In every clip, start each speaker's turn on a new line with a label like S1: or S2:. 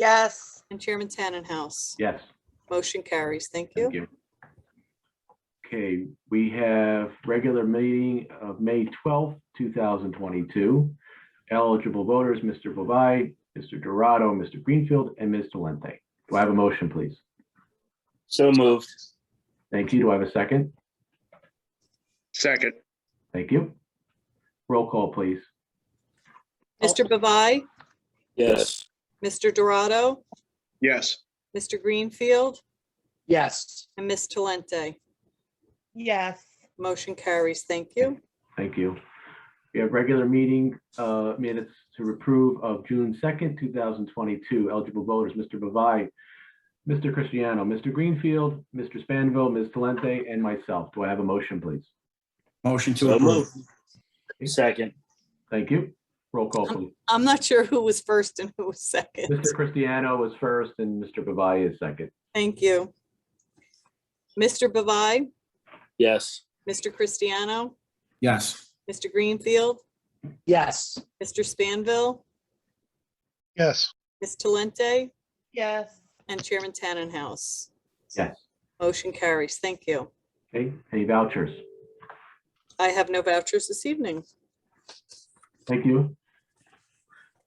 S1: Yes.
S2: and Chairman Tannenhouse.
S3: Yes,
S2: Motion carries. Thank you.
S3: thank you. Okay, we have regular meeting of May twelfth, two thousand twenty-two. Eligible voters, Mr. Bavai, Mr. Dorado, Mr. Greenfield, and Ms. Talente. Do I have a motion, please?
S4: So moved.
S3: Thank you. Do I have a second?
S4: Second.
S3: Thank you. Roll call, please.
S2: Mr. Bavai,
S4: Yes.
S2: Mr. Dorado,
S4: Yes.
S2: Mr. Greenfield,
S4: Yes.
S2: and Ms. Talente.
S1: Yes.
S2: Motion carries. Thank you.
S3: Thank you. We have regular meeting uh, minutes to approve of June 2nd, 2022. Eligible voters, Mr. Bavai, Mr. Cristiano, Mr. Greenfield, Mr. Spanville, Ms. Talente, and myself. Do I have a motion, please?
S5: Motion to
S4: So
S5: approve.
S4: moved. Second.
S3: Thank you. Roll call, please.
S2: I'm not sure who was first and who was second.
S3: Mr. Cristiano is first and Mr. Bavai is second.
S2: Thank you. Mr. Bavai,
S4: Yes.
S2: Mr. Cristiano,
S5: Yes.
S2: Mr. Greenfield,
S4: Yes.
S2: Mr. Spanville,
S6: Yes,
S2: Ms. Talente,
S1: Yes.
S2: and Chairman Tannenhouse.
S3: Yes.
S2: Motion carries. Thank you.
S3: Okay, any vouchers?
S2: I have no vouchers this evening.
S3: Thank you.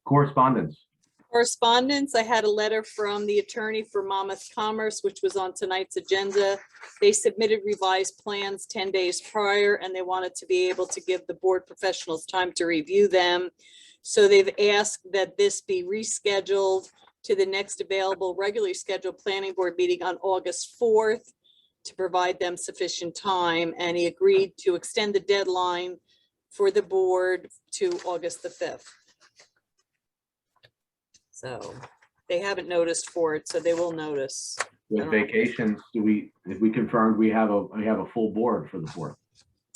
S3: Correspondence.
S2: Correspondence, I had a letter from the attorney for Monmouth Commerce, which was on tonight's agenda. They submitted revised plans ten days prior, and they wanted to be able to give the board professionals time to review them. So they've asked that this be rescheduled to the next available regularly scheduled planning board meeting on August fourth to provide them sufficient time, and he agreed to extend the deadline for the board to August the fifth. So they haven't noticed for it, so they will notice.
S3: With vacations, do we, if we confirmed we have a, we have a full board for the fourth?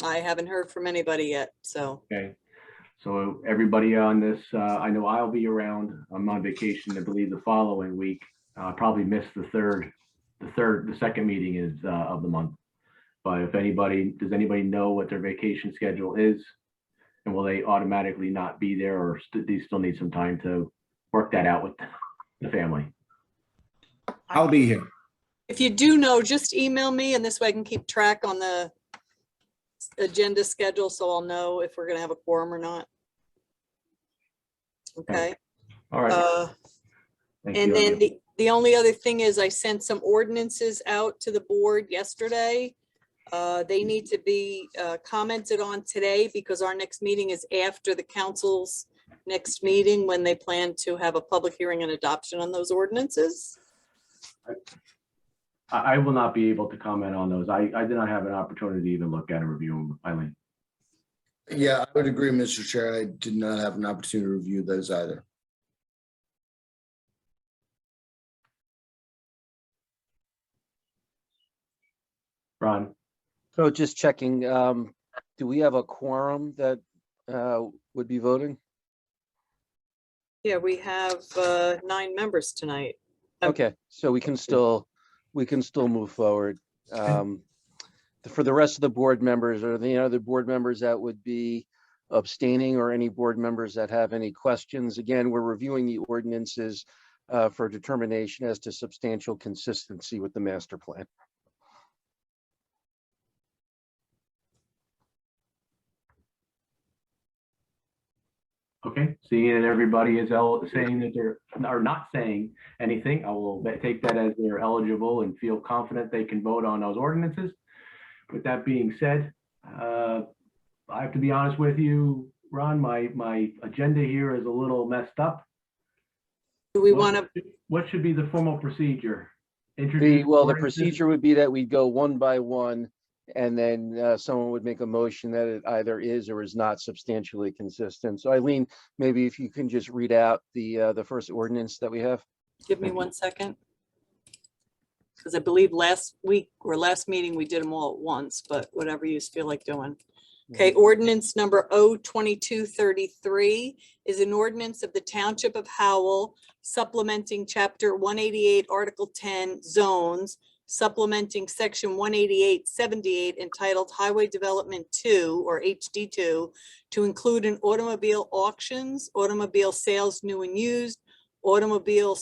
S2: I haven't heard from anybody yet, so
S3: Okay, so everybody on this, uh, I know I'll be around. I'm on vacation, I believe, the following week. Uh, probably missed the third, the third, the second meeting is, uh, of the month. But if anybody, does anybody know what their vacation schedule is? And will they automatically not be there or st- do you still need some time to work that out with the family?
S5: I'll be here.
S2: if you do know, just email me and this way I can keep track on the s- agenda schedule, so I'll know if we're gonna have a quorum or not. Okay,
S3: All right.
S2: uh,
S3: thank
S2: and
S3: you,
S2: then
S3: everyone.
S2: the, the only other thing is I sent some ordinances out to the board yesterday. Uh, they need to be, uh, commented on today because our next meeting is after the council's next meeting when they plan to have a public hearing and adoption on those ordinances.
S3: I, I will not be able to comment on those. I, I did not have an opportunity to even look at and review them, Eileen.
S7: Yeah, I would agree, Mr. Chair. I did not have an opportunity to review those either.
S3: Ron?
S8: So just checking, um, do we have a quorum that, uh, would be voting?
S2: Yeah, we have uh, nine members tonight. Um,
S8: Okay, so we can still, we can still move forward. Um, for the rest of the board members, are there any other board members that would be abstaining or any board members that have any questions? Again, we're reviewing the ordinances, uh, for determination as to substantial consistency with the master plan.
S3: Okay, seeing that everybody is el- saying that they're, are not saying anything, I will ba- take that as they're eligible and feel confident they can vote on those ordinances. With that being said, uh, I have to be honest with you, Ron, my, my agenda here is a little messed up.
S2: Do we want to,
S3: What should be the formal procedure?
S8: The,
S3: Introduce
S8: well, the
S3: ordinances?
S8: procedure would be that we'd go one by one, and then uh, someone would make a motion that it either is or is not substantially consistent. So Eileen, maybe if you can just read out the, uh, the first ordinance that we have.
S2: give me one second? Because I believe last week or last meeting, we did them all at once, but whatever you feel like doing. Okay, ordinance number O twenty-two thirty-three is an ordinance of the Township of Howell supplementing chapter one eighty-eight, article ten, zones, supplementing section one eighty-eight seventy-eight entitled Highway Development Two or HD two to include an automobile auctions, automobile sales new and used, automobile